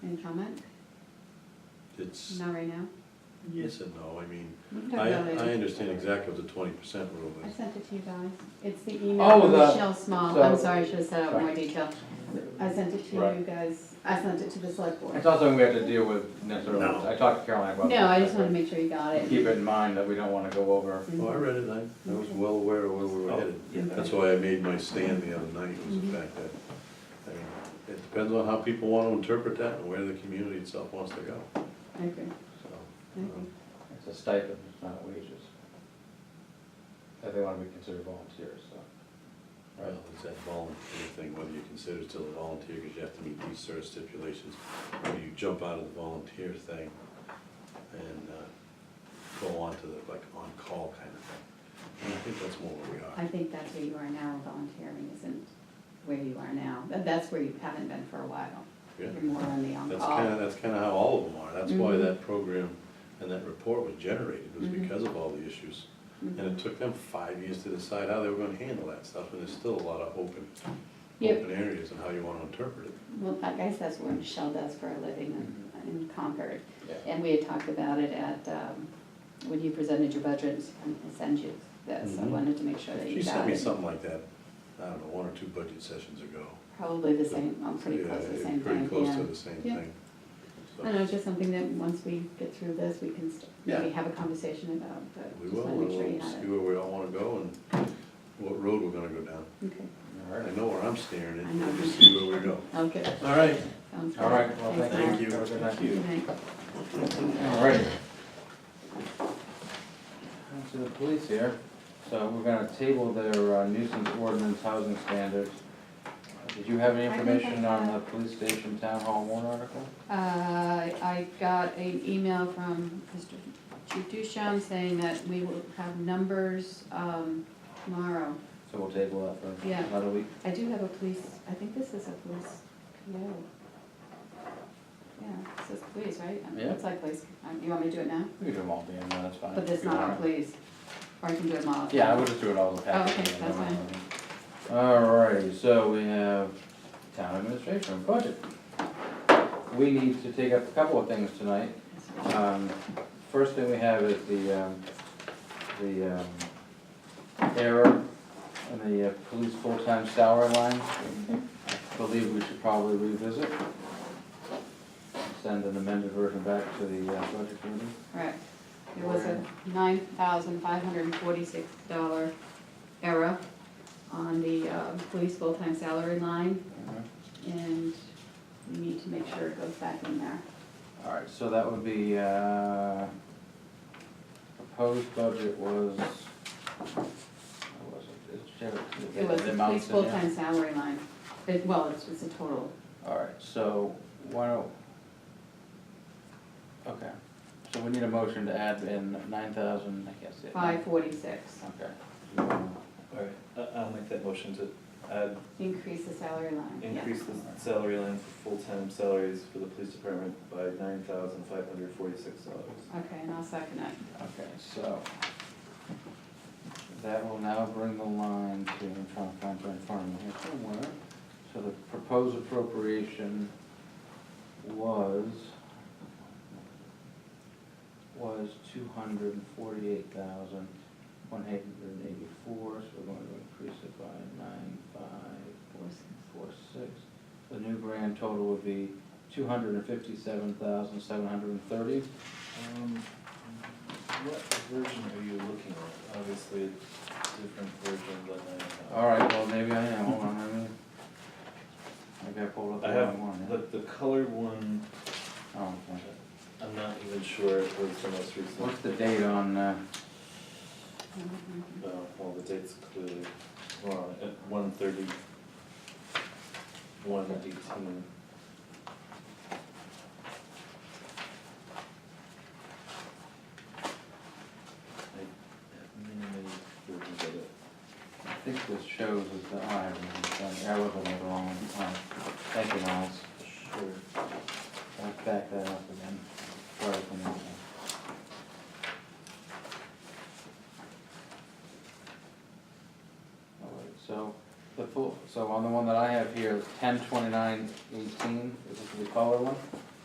comment? It's, Not right now? yes and no, I mean, We can talk I, about it later. I understand exactly what the twenty percent rule I is. sent it to you guys. It's the email Oh, from the- Michelle Small. I'm so- sorry, I should have said out more Sorry. detail. I sent it to Right. you guys. I sent it to the select board. It's not something we have to deal with necessarily. No. I talked to Caroline about. No, I this, just wanted to but make sure you got it. Mm-hmm. Keep it in mind that we don't wanna go over. Oh, I read it, I, I was well aware of where we were Oh, headed. yeah. That's why I made my stand the other night, was Mhm. the fact that, I mean, it depends on how people want to interpret that and where the community itself wants to go, I agree. so. I agree. um, It's a stipend, it's not wages. That they wanna be considered volunteers, so. Well, it's that volunteer thing, whether you consider still a volunteer, because you have to meet these certain stipulations, whether you jump out of the volunteer thing and uh, go on to the, like, on-call kind of thing. And I think that's more where we I are. think that's where you are now. Volunteering isn't where you are now. But That's where you haven't been for a while. Yeah. You're more on the That's kind of, on-call. that's kind of how all of them are. That's why Mhm. that program and that report was generated, was Mhm. because of all the issues. And Mhm. it took them five years to decide how they were gonna handle that stuff, and there's still a lot of open, Yep. open areas and how you wanna interpret it. Well, I guess that's what Michelle does for a living Mm-hmm. in- in Concord. Yeah. And we had talked about it at, um, when you presented your budget, and I sent you this, I Mhm. wanted to make sure that She you sent got me it. something like that, I don't know, one or two budget sessions ago. Probably the same, I'm pretty Yeah, close to the it- same Pretty thing, close to yeah. the same Yeah. thing. So, I don't know, it's just something that once we get through this, we can st- maybe Yeah. have a conversation about, but We just will, wanna and make sure you we'll have see it. where we all wanna go and what road we're gonna go down. Okay, All I right. know where I'm staring I at, know. we'll just see where we go. oh, good, All right, sounds good. All right, well, Thanks, thank Mark. you. Have a good night. Thank you. Good night. All right. On to the police here. So we're gonna table their uh, nuisance ordinance housing standards. Did you have any I think I information on the have- police station town hall warrant article? Uh, I got an email from Mr. Chief Duchamp saying that we will have numbers, um, tomorrow. So we'll table that for Yeah. another week. I do have a police, I think this is a police PO. Yeah, it says police, right? I mean, Yeah. It's like police, um, you want me to do it now? We can do them all at the end, no, that's fine. But that's If you not our want. police, or I can do it all. at Yeah, I would once. just do it all as a package. okay, that's fine. Alrighty, so we have town administration budget. We need to take up a couple of things tonight. Um, First thing we have is the, um, the um, error in the uh, police full-time salary line. I believe we should probably revisit. Send an amended version back to the uh, budget committee. Correct. There was a nine thousand five hundred and forty-six dollar error on the, uh, police full-time salary line, and we need to make sure it goes back in there. All right, so that would be, uh, proposed budget was, what was it? Did you have it? It was The the amounts police in there? full-time salary line, it, well, it's, it's a total, All right, so why don't, okay, so we need a motion to add in nine thousand, I guess. it- five forty-six. Okay. All right, I- I'll make that motion to add, Increase the salary line, yeah. increase the salary line for full-time salaries for the police department by nine thousand five hundred forty-six dollars. Okay, and I'll second it. Okay, so that will now bring the line to, I'm trying to find it in front of me here somewhere. So the proposed appropriation was, was two hundred and forty-eight thousand, one hundred and eighty-four, so we're going to increase it by nine five Four six. four six. The new grand total would be two hundred and fifty-seven thousand, seven hundred and thirty. Um, What version are you looking at? Obviously, a different version than I have. All right, well, maybe I am, hold on, let me, maybe I pulled up the I have wrong one, yeah. But the colored one, Oh, okay. I'm not even sure it was the most recent. What's the date on, uh, Mhm. Uh, Well, the date's clearly wrong, at one thirty, one eighteen. I, many, many versions of it. I think this shows is the, oh, I haven't even done, I was looking at the wrong one, oh, thank you, Miles. Sure. Let's back that up again. Sorry for me. All right, so the full, so on the one that I have here, ten twenty-nine eighteen, is this the color one?